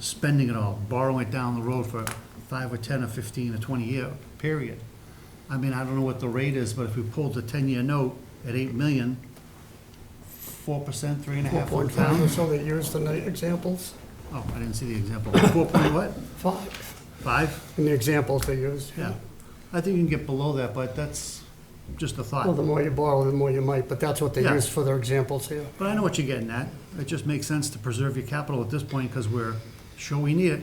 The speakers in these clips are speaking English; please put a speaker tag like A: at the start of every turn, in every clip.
A: spending it all, borrowing it down the road for five or 10 or 15 or 20-year period. I mean, I don't know what the rate is, but if we pulled the 10-year note at 8 million, 4%, 3.5
B: Four
A: on
B: point five or
A: town?
B: so they used in the examples,
A: Oh, I didn't see the example. 4 point what?
B: five,
A: 5?
B: in the examples they used.
A: Yeah. I think you can get below that, but that's just a
B: Well, the
A: thought.
B: more you borrow, the more you might, but that's what they
A: Yeah.
B: used for their examples here.
A: But I know what you're getting at. It just makes sense to preserve your capital at this point because we're sure we need it.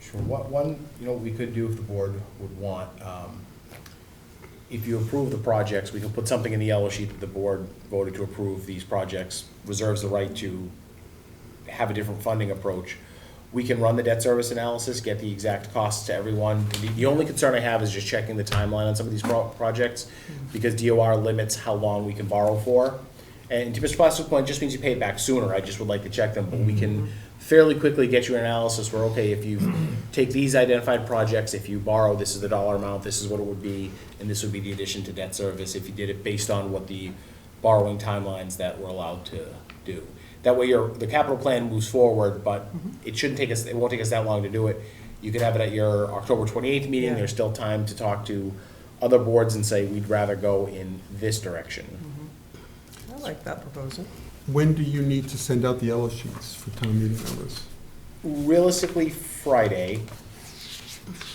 C: Sure, what, one, you know, we could do if the board would want, um, if you approve the projects, we can put something in the yellow sheet that the board voted to approve these projects, reserves the right to have a different funding approach. We can run the debt service analysis, get the exact costs to everyone. The, the only concern I have is just checking the timeline on some of these pro- projects, because DOR limits how long we can borrow for. And to Mr. Plasko's point, it just means you pay it back sooner, I just would like to check them, but we can fairly quickly get you an analysis where, okay, if you take these identified projects, if you borrow, this is the dollar amount, this is what it would be, and this would be the addition to debt service, if you did it based on what the borrowing timelines that we're allowed to do. That way your, the capital plan moves forward, but it shouldn't take us, it won't take us that long to do it. You could have it at your October twenty-eighth meeting, there's still time to talk to other boards and say, we'd rather go in this direction.
D: I like that proposal.
E: When do you need to send out the yellow sheets for town meeting members?
C: Realistically, Friday,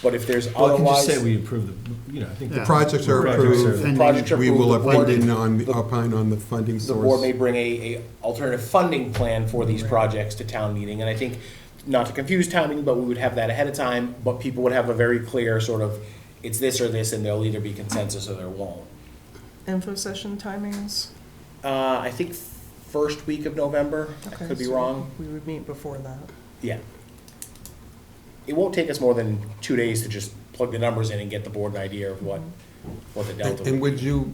C: but if there's
F: Well, I can just
C: otherwise.
F: say we approve the, you know, I think.
A: Yeah.
F: the
E: Projects are
F: Projects are-
E: approved.
C: Projects are
E: We will
C: approved, the board-
E: opine on, the- opine on the funding
C: the board may
E: source.
C: bring a, a alternative funding plan for these projects to town meeting, and I think, not to confuse town meeting, but we would have that ahead of time, but people would have a very clear sort of, it's this or this, and there'll either be consensus or there won't.
D: Info session timings?
C: Uh, I think first week of November, I
D: Okay,
C: could be
D: so
C: wrong,
D: We would meet before that.
C: yeah. It won't take us more than two days to just plug the numbers in and get the board an idea of what, what the delta.
E: And would you,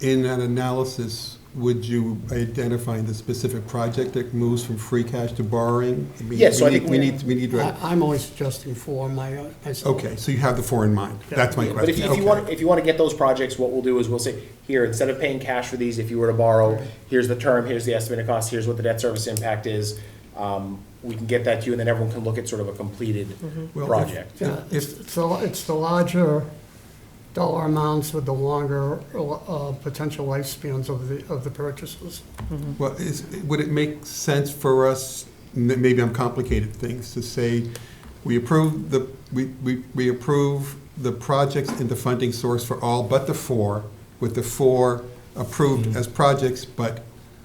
E: in that analysis, would you identify the specific project that moves from free cash to borrowing? I mean,
C: Yeah, so
E: we
C: I think
E: need-
C: we-
E: We need, we need,
B: I-
E: to-
B: I'm only suggesting four, my, uh, myself.
E: okay, so you have the four in mind. That's my
C: But if
E: question.
C: you, if you
E: Okay.
C: want, if you want to get those projects, what we'll do is we'll say, here, instead of paying cash for these, if you were to borrow, here's the term, here's the estimated cost, here's what the debt service impact is. Um, we can get that to you, and then everyone can look at sort of a completed
E: Well, if-
C: project.
B: Yeah,
E: If-
B: it's, it's the- it's the larger dollar amounts with the longer, uh, potential lifespans of the, of the purchases.
E: Well, is, would it make sense for us, m- maybe I'm complicated things, to say, we approve the, we, we, we approve the projects and the funding source for all but the four, with the four approved as projects, but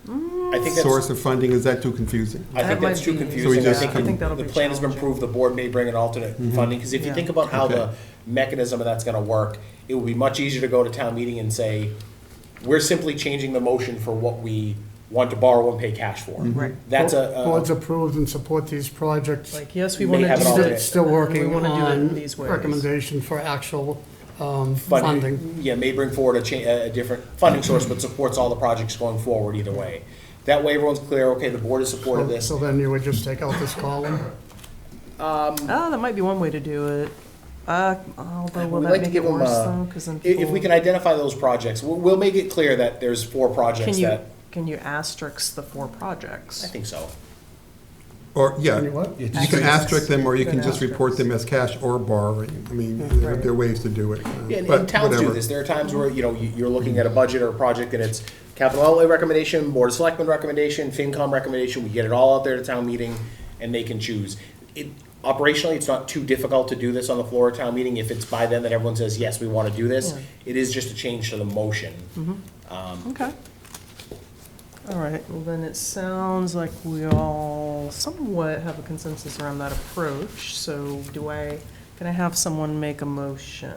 C: I think
E: source
C: that's,
E: of funding, is that too confusing?
C: I think
D: That
C: that's
D: might
C: too
D: be-
C: confusing. I
E: just
C: think,
E: come- I
D: think that'll
C: the
D: be
C: plan has been
D: challenging. Mm-hmm.
C: approved, the board may bring an alternate funding, because if you
D: Yeah.
C: think about how the
E: Okay.
C: mechanism of that's gonna work, it would be much easier to go to town meeting and say, we're simply changing the motion for what we want to borrow and pay cash for.
D: Right.
C: That's a- uh, a.
B: Boards approved and support these projects.
D: Like, yes, we
C: May
D: want to
C: have it all day.
D: do
B: Still,
C: it.
D: this.
B: still
D: and
B: working
D: We want to do it
B: on
D: these ways.
B: recommendation for actual, um, funding.
C: funding, yeah, may bring forward a cha, a a different funding source, but supports all the projects going forward either way. That way everyone's clear, okay, the board is supportive of this.
B: So then you would just take out this column?
D: Ah, that might be one way to do it. Uh, although, will
C: We'd
D: that
C: like to
D: make it
C: give them uh,
D: worse
C: a-
D: though? Because then
C: i- If, we
D: people-
C: can identify those projects, we'll, we'll make it clear that there's four
D: Can
C: projects
D: you,
C: that,
D: can you asterisk the four
C: I
D: projects?
C: think so.
E: Or, yeah,
B: You know what?
E: you
D: Asterisks.
E: can asterisk them, or you
D: Good
E: can just report them as cash or borrowing. I mean, there there are ways to do it, uh,
C: Yeah, and,
E: but
C: and towns do
E: whatever.
C: this. There are times where, you know, you, you're looking at a budget or a project and it's capital outlay recommendation, board of selectmen recommendation, FinCom recommendation, we get it all out there to town meeting and they can choose. It, operationally, it's not too difficult to do this on the floor of town meeting if it's by then that everyone says, yes, we want to do this. It is just a change to the motion.
D: Okay. All right, well then it sounds like we all somewhat have a consensus around that approach, so do I, can I have someone make a motion?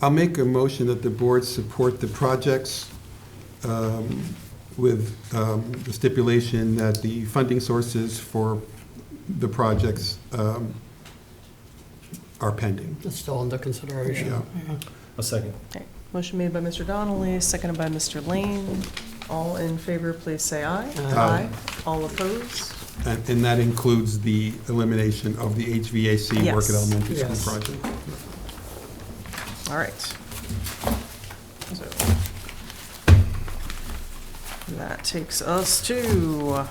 E: I'll make a motion that the board support the projects um, with um, the stipulation that the funding sources for the projects um, are pending.
B: It's still under consideration.
E: Yeah.
F: A second.
D: Okay, Motion made by Mr. Donnelly, seconded by Mr. Lane. All in favor, please say aye.
E: Aye.
D: All opposed?
E: And and that includes the elimination of the HVAC work at
D: Yes.
E: elementary
B: Yes.
E: school project.
D: All right. So That takes us to